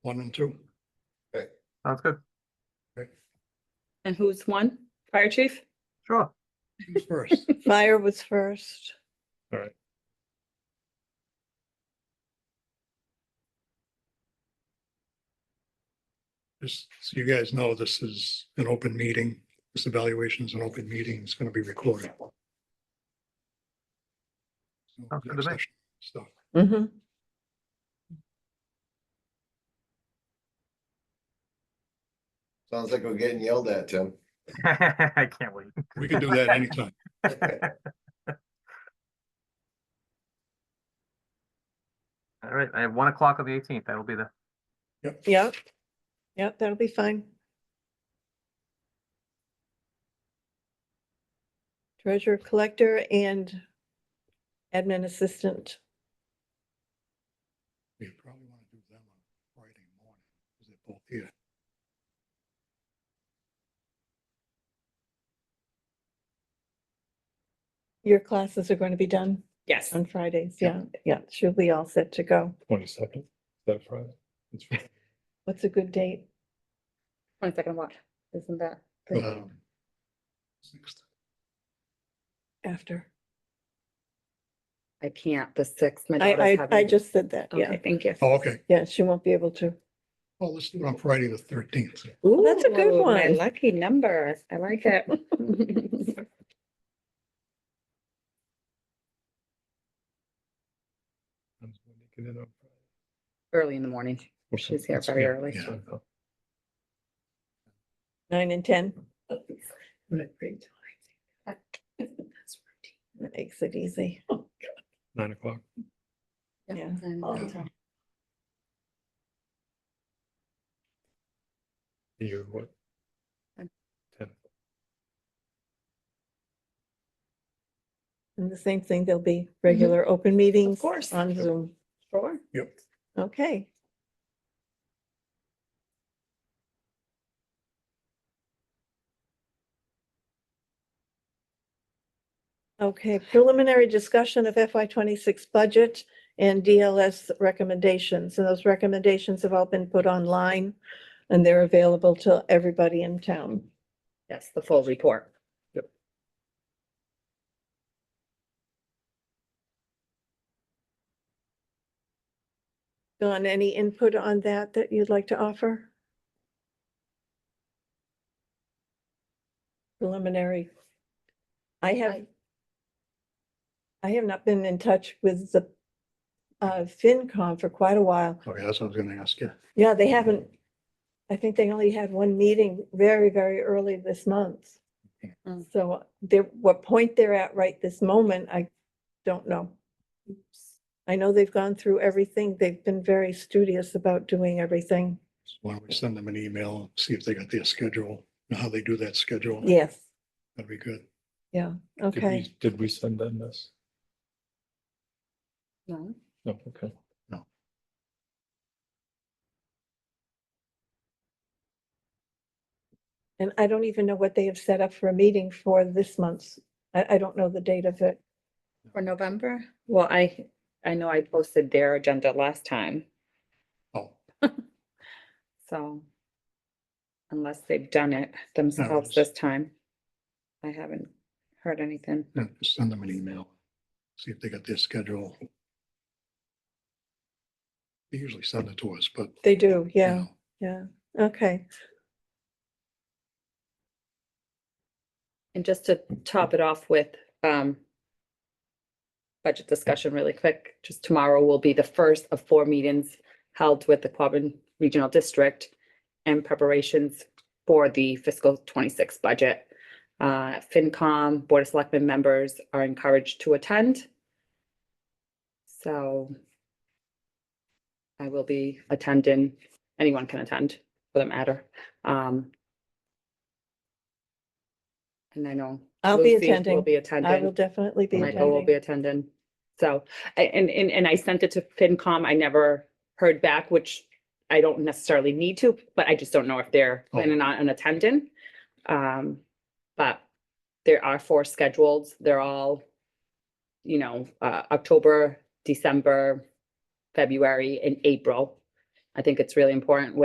one and two. Sounds good. And who's one? Fire chief? Sure. Who's First, Fire was first. just so you guys know, this is an open meeting. This evaluation is an open meeting. It's gonna be recorded. So, Sounds good to me. next session Stuff. Sounds like we're getting yelled at, Tim. I can't wait. We can do that anytime. All right, I have one o'clock on the eighteenth. I will be there. Yep. Yep, that'll be fine. Treasurer collector and admin assistant. We probably wanna do them on Friday morning. Cause they're both here. Your classes are going to be done Yes. on Fridays. Yeah, yeah. She'll be all set to go. Twenty second, that Friday? It's Friday. What's a good date? One second, what? Isn't that? Um, sixth. After. I can't, the sixth. my daughter's I, I, I having- just said that. Yeah, Okay, thank you. Oh, okay. yeah, she won't be able to. Well, let's do it on Friday, the thirteenth. Ooh, Oh, that's a good my one. Lucky number. I like it. I'm just gonna make it in on Friday. Early in the morning. She's here That's very good. early. Yeah. Nine and ten. What a great time. That Makes it easy. Nine o'clock. Yeah. Um, Yeah. You, what? Ten. Ten. And the same thing, there'll be regular open meetings. Mm-hmm. course. On Zoom. Sure. Yep. Okay. Okay, preliminary discussion of FY twenty-six budget and DLS recommendations. And those recommendations have all been put online and they're available to everybody in town. Yes, the full report. Don, any input on that that you'd like to offer? Preliminary. I have, I- I have not been in touch with the uh, FinCom for quite a while. Okay, Oh, that's what I was gonna ask you. Yeah, they haven't, I think they only had one meeting very, very early this month. Okay. Mm. So they're, what point they're at right this moment, I don't know. I know they've gone through everything. They've been very studious about doing everything. Why don't we send them an email, see if they got their schedule, and how they do that schedule? Yes, That'd be good. Did we- okay. Did we send them this? No. No, okay. And I don't even know what they have set up for a meeting for this month. I, I don't know the date of it. For November? Well, I, I know I posted their agenda last time, Oh, so. Unless they've done it themselves it's- this time. I haven't heard anything. yeah, just send them an email, see if they got their schedule. They usually send it to us, but. you They do, yeah, know, yeah, okay. And just to top it off with, um. Budget discussion really quick, just tomorrow will be the first of four meetings held with the Quabbin Regional District. And preparations for the fiscal twenty-six budget. Uh, FinCom, Board of Selectmen members are encouraged to attend. So. I will be attending, anyone can attend for that matter, um. And I know. I'll be Lucy Will attending. be I will attending, definitely be Michael will be attending. attending. So, a- and, and, and I sent it to FinCom, I never heard back, which I don't necessarily need to, but I just don't know if they're Oh. planning on an attendant. Um, but there are four scheduled, they're all, you know, uh, October, December, February and April. I think it's really important